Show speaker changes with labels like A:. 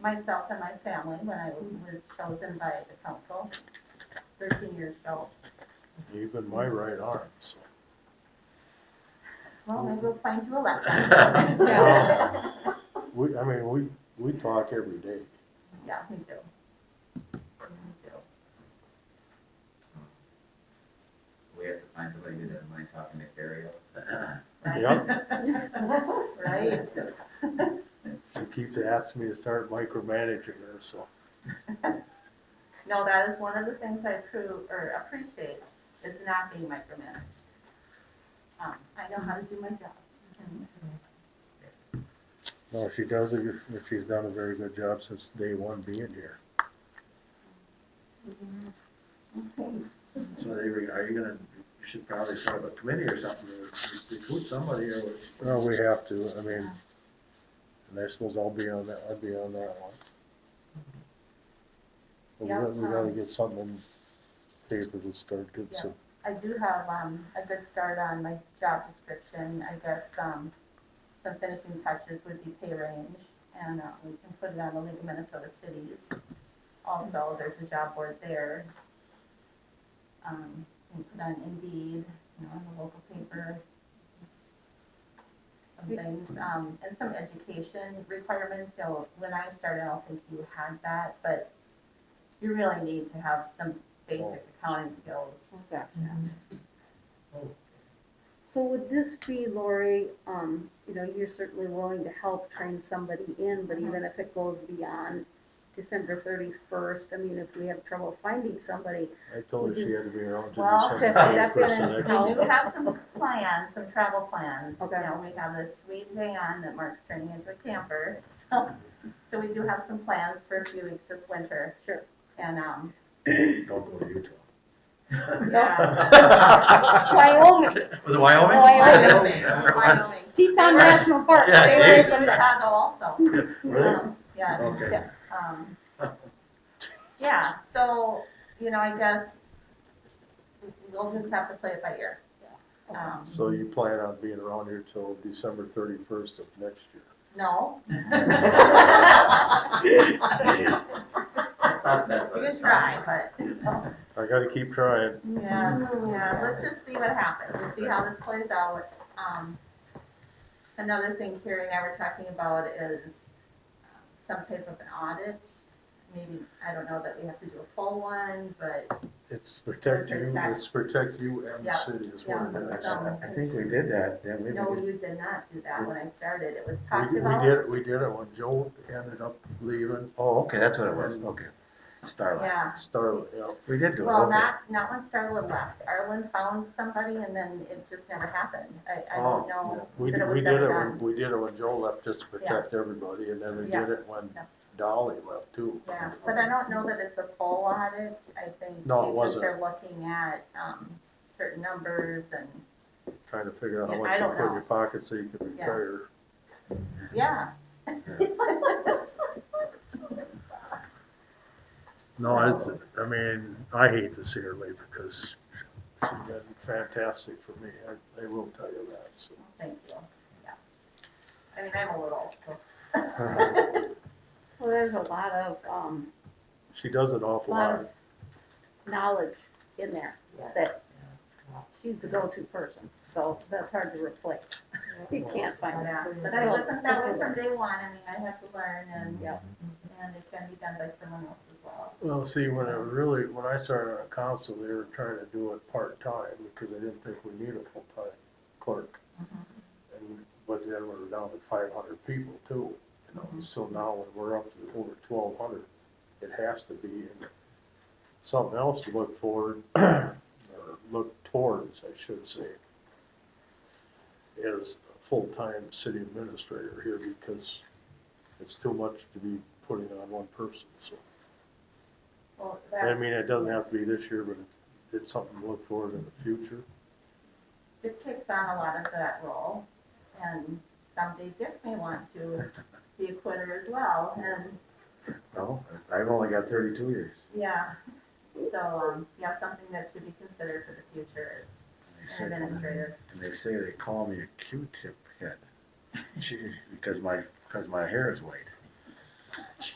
A: myself and my family when I was chosen by the council thirteen years ago.
B: Even my right arm, so.
A: Well, maybe we'll find you a laptop.
B: Yeah. We, I mean, we, we talk every day.
A: Yeah, me too. Me too.
C: We have to find somebody who doesn't mind talking to Carrie.
A: Right?
B: She keeps asking me to start micromanaging her, so.
A: No, that is one of the things I approve, or appreciate, is not being micromanaged. Um, I know how to do my job.
B: No, she does, a good- she's done a very good job since day one being here.
A: Okay.
D: So they, re- are you gonna, you should probably set up a committee or something, to recruit somebody or.
B: Well, we have to, I mean, and I suppose I'll be on that, I'd be on that one. But we
A: Yeah,
B: gotta, we gotta
A: um,
B: get something in paper to start good, so.
A: I do have, um, a good start on my job description, I guess, um, some finishing touches would be pay range, and, uh, we can put it on the League of Minnesota Cities. Also, there's a job board there. Um, we can put on Indeed, you know, in the local paper. Some things, um, and some education requirements, so when I started, I don't think you had that, but you really need to have some basic accounting skills.
E: Gotcha. So would this be, Lori, um, you know, you're certainly willing to help train somebody in, but even if it goes beyond December thirty-first, I mean, if we have trouble finding somebody,
B: I told her she had to be around to
A: Well,
B: December
A: to
E: step in
B: 31st
E: and
B: of next
A: We
E: help.
A: do
B: year.
A: have some plans, some travel plans. You
E: Okay.
A: know, we have this sweet van that Mark's turning into a camper, so, so we do have some plans for a few weeks this winter.
E: Sure.
A: And, um,
D: Don't go to Utah.
A: yeah.
E: Wyoming,
D: Was it Wyoming?
E: Wyoming.
D: Remember it was?
A: Wyoming.
E: Teton National Park,
D: Yeah,
E: stay
D: hey.
E: away
A: We're in
E: from that.
A: Chicago also,
D: Really?
A: um, yeah.
D: Okay.
A: Um, yeah, so, you know, I guess we'll just have to play it by ear. Um,
B: So you plan on being around here till December thirty-first of next year?
A: no.
D: I thought that,
A: You
D: but-
A: can try, but.
B: I gotta keep trying.
A: Yeah, yeah, let's just see what happens, we'll see how this plays out. Um, another thing Carrie and I were talking about is um, some type of an audit. Maybe, I don't know that we have to do a full one, but
B: It's protect
A: Perfect
B: you,
A: tax.
B: it's protect you and the
A: Yeah,
B: city is what it
A: yeah,
B: is.
A: so-
F: I think we did that, yeah, we
A: no,
F: did.
A: you did not do that when I started, it was talked
B: We, we
A: about.
B: did, it- we did it when Joe ended up leaving
F: Oh, okay, that's what it was, okay. Starlight.
A: Yeah.
B: Starlet, yeah.
F: We did do it,
A: Well,
F: okay.
A: not, not when Starla left, Arlen found somebody and then it just never happened, I, I don't
F: Oh,
A: know.
B: We,
A: But it
B: did- we
A: was
B: did it
A: never
B: when, we did it when Joe left just to protect everybody and then we
A: Yeah.
B: did it when
A: Yeah.
B: Dolly left too.
A: Yeah, but I don't know that it's a full audit, I think.
B: No, it
A: they just
B: wasn't.
A: are looking at, um, certain numbers and,
B: Trying to figure out how
A: Yeah,
B: much
A: I
B: to
A: don't
B: put in
A: know.
B: your pocket so you can
A: Yeah.
B: retire.
E: Mm-hmm.
A: yeah.
B: No, it's, I mean, I hate to see her leave because she's been fantastic for me. I, I will tell you that, so.
A: Thank you, yeah. I mean, I'm a little, so.
E: Well, there's a lot of, um,
B: She does an awful
E: lot
B: lot.
E: of knowledge in there that she's the go-to person, so that's hard to replace. You can't find
A: yeah.
E: that.
A: But I
E: So,
A: wasn't that
E: it's
A: way
E: a- Mm-hmm.
A: from day one, I mean, I had to learn and,
E: Yeah.
A: and it can be done by someone else as well.
B: Well, see, when I really, when I started on council, they were trying to do it part-time because they didn't think we needed a full-time clerk. And, but then we're down to five hundred people too, you know, so now when we're up to over twelve hundred, it has to be. and Something else to look forward, or look towards, I should say, is a full-time city administrator here because it's too much to be putting on one person, so.
A: Well,
B: I
A: that's
B: mean, it doesn't have to be this year, but it's, it's something to look forward in the future.
A: Dick takes on a lot of that role, and someday Dick may want to be a quitter as well, and
F: Well, I've only got thirty-two years.
A: Yeah, so, um, yeah, something that should be considered for the future
F: They
A: is
F: say-
A: an administrator.
F: And they say they call me a Q-tip head, Gee, because my, because my hair is white.